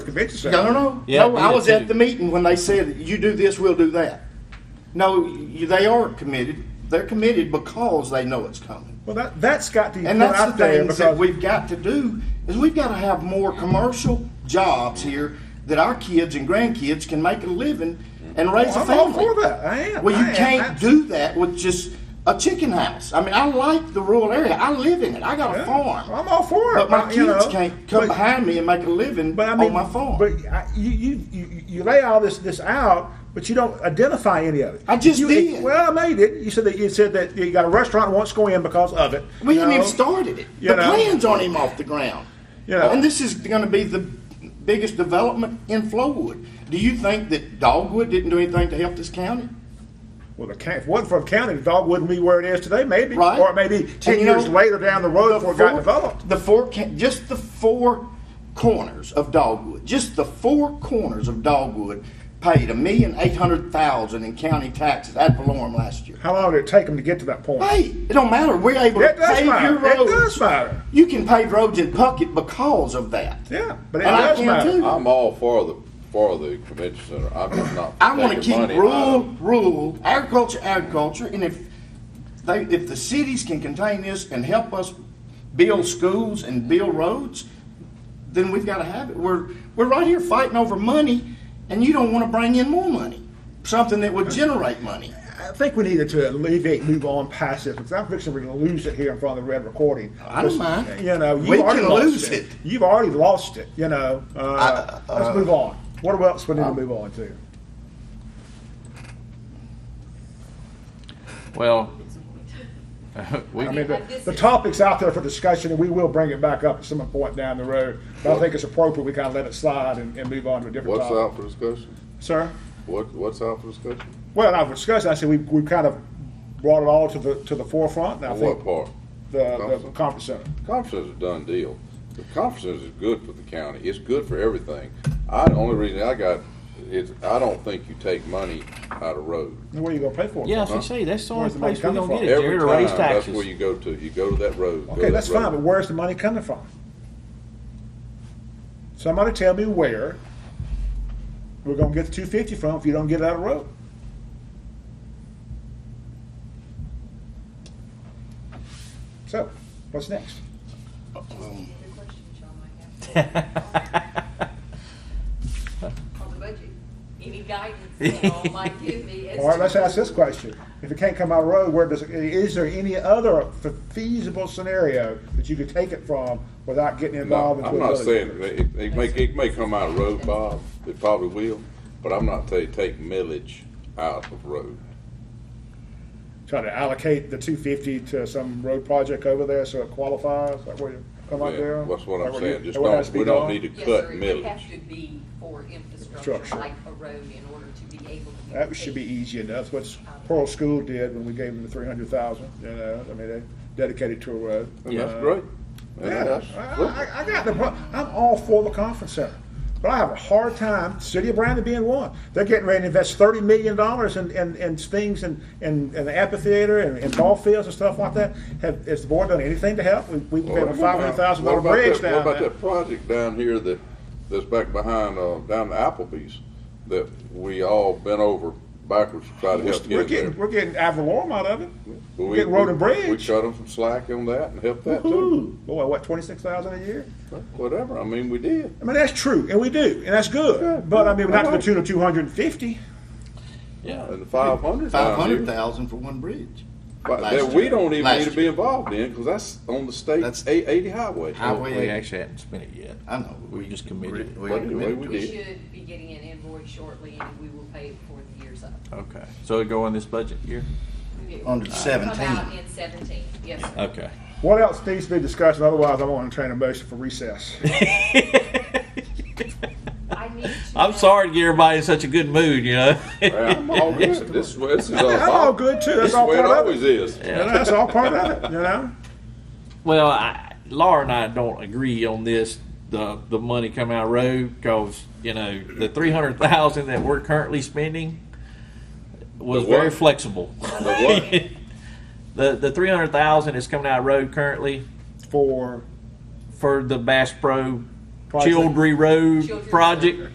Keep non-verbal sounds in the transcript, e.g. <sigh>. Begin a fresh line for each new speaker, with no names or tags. convention center.
No, no, no.
Yeah,
no, I
yeah,
was
too.
at the meeting when they said, you do this, we'll do that. No, you, they are committed. They're committed because they know it's coming.
Well, that, that's got to be put
And that's
out
the
there
things that
because
we've got to do, is we've got to have more commercial jobs here that our kids and grandkids can make a living and raise a
I'm all
family.
for that. I am.
Well,
I
you
am.
can't do that with just a chicken house. I mean, I like the rural area. I live in it. I got a
Yeah,
farm.
I'm all for it.
But my
I- you
kids
know,
can't come
but-
behind me and make a living
But I mean,
on my farm.
But I, you, you, you, you lay all this, this out, but you don't identify any of it.
I just
You-
did.
Well, I made it. You said that you said that you got a restaurant that wants to go in because of it.
We
you
haven't
know?
even started it.
You
The
know.
plans aren't even off the ground.
You know.
And this is going to be the biggest development in Flowood. Do you think that Dogwood didn't do anything to help this county?
Well, the county, if it wasn't for the county, the dog wouldn't be where it is today, maybe.
Right.
Or maybe 10
And you
years
know,
later down the road before it got
four-
developed.
The four, ca- just the four corners of Dogwood, just the four corners of Dogwood paid a million eight hundred thousand in county taxes ad valorem last year.
How long did it take them to get to that point?
Hey, it don't matter. We're able
It
to
does
pave
matter.
your
It
roads.
does matter.
You can pave roads in Puckett because of that.
Yeah, but it
And I
does
can
matter.
too.
I'm all for the, for the convention center, I'm just not.
I want to
taking
keep
money out
rural,
of it.
rural, agriculture, agriculture, and if they, if the cities can contain this and help us build schools and build roads, then we've got to have it. We're, we're right here fighting over money, and you don't want to bring in more money, something that would generate money.
I think we needed to alleviate, move on past this because I'm fixing we're going to lose it here in front of the red recording.
I don't mind.
You know,
We
you already
can
lost
lose
it.
it.
You've already lost it. You know, uh, let's move on. What else we need to move on to?
Well, we,
I mean,
Yeah,
the,
this
the
is-
topic's out there for discussion, and we will bring it back up at some point down the road. But I think it's appropriate we kind of let it slide and, and move on to a different
What's
topic.
out for discussion?
Sir?
What, what's out for discussion?
Well, I've discussed, I said we, we kind of brought it all to the, to the forefront, and I
On what
think
part?
the, the conference center.
Conference is a done deal. The conference center is good for the county. It's good for everything. I, the only reason I got is I don't think you take money out of road.
Where are you gonna pay for it?
yeah, as you say, that's the only
Where's the money
place we're
coming
gonna get it,
Every
Jared, to raise
time, that's
taxes.
where
<laughs>
you go to. You go to that road. go to
Okay,
that
that's fine,
road.
but where's the money coming from? Somebody tell me where we're gonna get the two fifty from if you don't get it out of road. So, what's next?
The question that y'all might have on the budget, any guidance that y'all might give me as
All right, let's
to-
ask this question. If it can't come out of road, where does, it- is there any other feasible scenario that you could take it from without getting
No,
involved? into
I'm
a
not
village?
saying, it, it may, it may come out of road, Bob, it probably will, but I'm not saying take millage out of road.
try to allocate the two fifty to some road project over there so it qualifies, like where you come out there?
Yeah, That's what
Like
I'm
where you-
saying, just
where it has to
don't,
be
we don't
done?
need to
Yes,
cut
sir, It would have
millage.
to be for
Structure.
infrastructure, like a road, in order to be able to.
That should be easy enough, what Pearl School did when we gave them the three hundred thousand, you know, I mean, they dedicated to a road.
And that's
Uh,
great. And
Yeah,
that's-
I, I- I got the, pro- I'm all for the conference center, but I have a hard time, City of Brandon being one. They're getting ready to invest thirty million dollars in, in, in things and, and, and the amphitheater and, and ball fields and stuff like that. Have, has the board done anything to help? We, we paid a five
What about-
hundred thousand dollar
what about
bridge
that-
down
What about
there.
that project down here that, that's back behind, uh, down the Applebee's, that we all bent over backwards to try to help
We're
get in
getting,
there?
we're getting ad valorem out of it.
But
We're
we-
getting road and
we- We
bridge.
cut them some slack on that and helped that too,
Woo-hoo. Boy, what, twenty-six thousand a year?
whatever, I mean, we did.
I mean, that's true, and we do, and that's good,
Good.
but I mean, not to the
Alright.
tune of two hundred and fifty.
Yeah,
And the five hundred
Five
down
hundred
here.
thousand for one bridge.
But
Last
that we
year.
don't even
Last
need to be
year.
involved in, because that's on the state
That's-
eight- eighty highway.
How-
we
we-
actually haven't spent it yet.
I know.
We just committed.
We- we-
But anyway, we
We
did.
should be getting an invoice shortly, and we will pay it before the year's up.
Okay, so it go in this budget year?
It
Under
will Come
17.
out in seventeen, yes, sir.
Okay.
What else needs to be discussed? Otherwise, I'm going to entertain a motion for recess.
I need to.
<laughs> I'm
know-
sorry to get everybody in such a good mood, you know? <laughs>
Yeah, I'm all good. This, this is all.
I'm all good too.
This
That's
is
all
where it
part of
always
it.
is.
You know, that's all part of it. You know.
Well, I, Laura and I don't agree on this, the, the money coming out of road, because, you know, the three hundred thousand that we're currently spending was
The what?
very flexible.
The
<laughs> The, the three hundred thousand is coming out of road currently
For
for the Bass Pro
Project.
Childry Road
Childry Road.
project.